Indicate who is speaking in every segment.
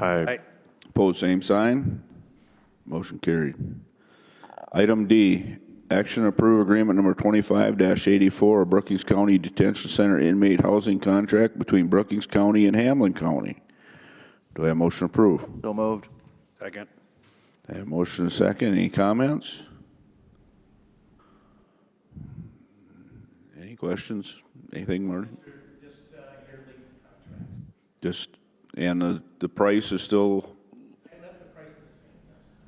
Speaker 1: Aye.
Speaker 2: Pose same sign. Motion carried. Item D, action to approve agreement number 25-84, a Brookings County Detention Center inmate housing contract between Brookings County and Hamlin County. Do I have motion to approve?
Speaker 3: So moved.
Speaker 1: Second.
Speaker 2: I have motion and second. Any comments? Any questions? Anything, Marty? Just yearly contracts. Just, and the, the price is still? I left the price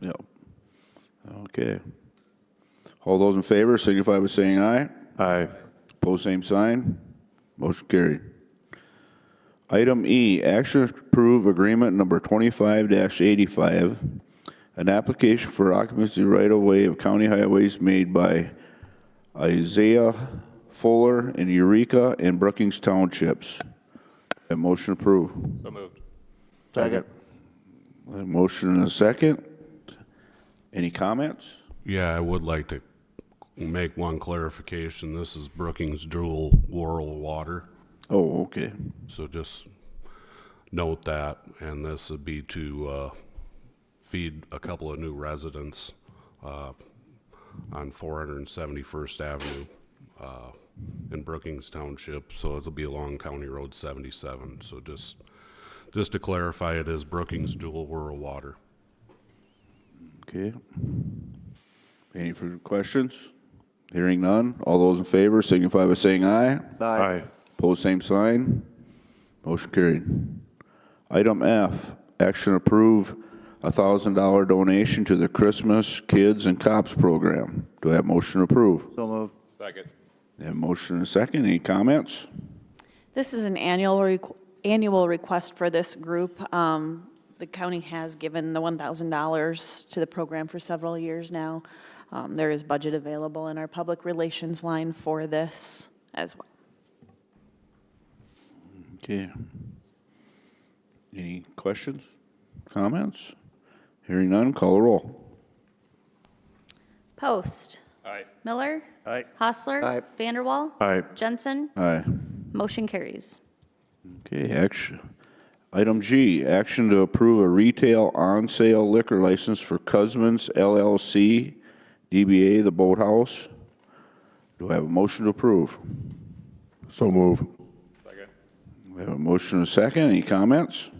Speaker 2: the same, yes. Yep. Okay. All those in favor signify by saying aye.
Speaker 1: Aye.
Speaker 2: Pose same sign. Motion carried. Item E, action to approve agreement number 25-85, an application for occupancy right-of-way of county highways made by Isaiah Fuller in Eureka and Brookings Townships. A motion approved.
Speaker 3: Second.
Speaker 2: A motion and a second. Any comments?
Speaker 4: Yeah, I would like to make one clarification. This is Brookings Dual Rural Water,
Speaker 2: Oh, okay.
Speaker 4: so just note that. And this would be to uh, feed a couple of new residents uh, on 471st Avenue uh, in Brookings Township. So it'll be along County Road 77. So just, just to clarify, it is Brookings Dual Rural Water.
Speaker 2: Okay. Any further questions? Hearing none. All those in favor signify by saying aye.
Speaker 3: Aye.
Speaker 1: Aye.
Speaker 2: Pose same sign. Motion carried. Item F, action approve a thousand dollar donation to the Christmas Kids and Cops Program. Do I have motion to approve?
Speaker 3: So moved.
Speaker 2: Have motion and a second. Any comments?
Speaker 5: This is an annual, requ- annual request for this group. Um, The county has given the $1,000 to the program for several years now. Um, There is budget available in our public relations line for this as well.
Speaker 2: Okay. Any questions, comments? Hearing none, call a roll.
Speaker 6: Post. Miller.
Speaker 1: Aye.
Speaker 6: Hostler.
Speaker 3: Aye.
Speaker 6: Vanderwall.
Speaker 1: Aye.
Speaker 6: Jensen.
Speaker 2: Aye.
Speaker 6: Motion carries.
Speaker 2: Okay, action. Item G, action to approve a retail on-sale liquor license for Cusman's LLC, DBA The Boathouse. Do I have a motion to approve?
Speaker 1: So move.
Speaker 2: We have a motion and a second. Any comments?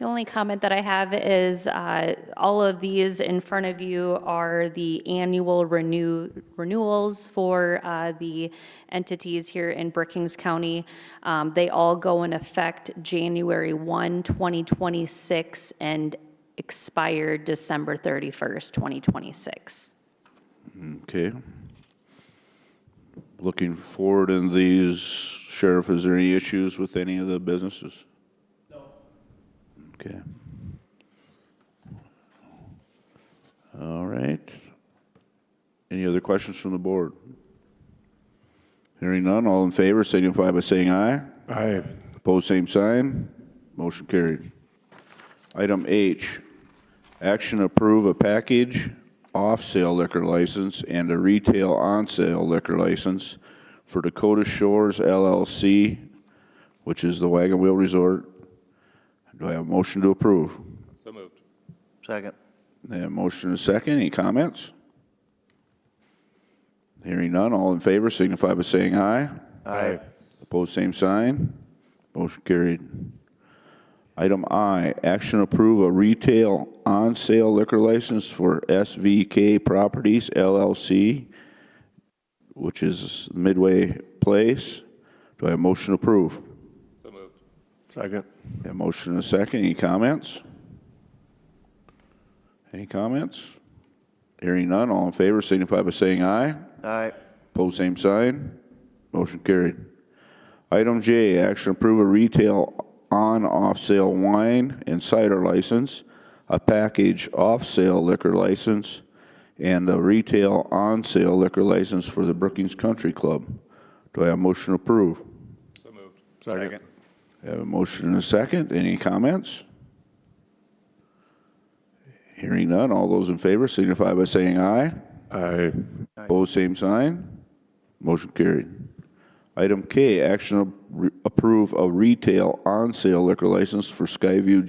Speaker 6: The only comment that I have is uh, all of these in front of you are the annual renew renewals for uh, the entities here in Brookings County. Um, They all go in effect January 1, 2026, and expire December 31st, 2026.
Speaker 2: Okay. Looking forward in these, Sheriff, is there any issues with any of the businesses? No. Okay. All right. Any other questions from the board? Hearing none, all in favor signify by saying aye.
Speaker 1: Aye.
Speaker 2: Opposed, same sign. Motion carried. Item H, action to approve a package off-sale liquor license and a retail on-sale liquor license for Dakota Shores LLC, which is the Wagon Wheel Resort. Do I have a motion to approve?
Speaker 3: Second.
Speaker 2: I have a motion and a second. Any comments? Hearing none, all in favor signify by saying aye.
Speaker 1: Aye.
Speaker 2: Opposed, same sign. Motion carried. Item I, action approve a retail on-sale liquor license for SVK Properties LLC, which is Midway Place. Do I have motion to approve?
Speaker 1: Second.
Speaker 2: Have motion and a second. Any comments? Any comments? Hearing none, all in favor signify by saying aye.
Speaker 3: Aye.
Speaker 2: Pose same sign. Motion carried. Item J, action approve a retail on-off sale wine and cider license, a package off-sale liquor license, and a retail on-sale liquor license for the Brookings Country Club. Do I have a motion to approve?
Speaker 1: Second.
Speaker 2: I Have a motion and a second. Any comments? Hearing none. All those in favor signify by saying aye.
Speaker 1: Aye.
Speaker 2: Opposed, same sign. Motion carried. Item K, action to re- approve a retail on-sale liquor license for Skyview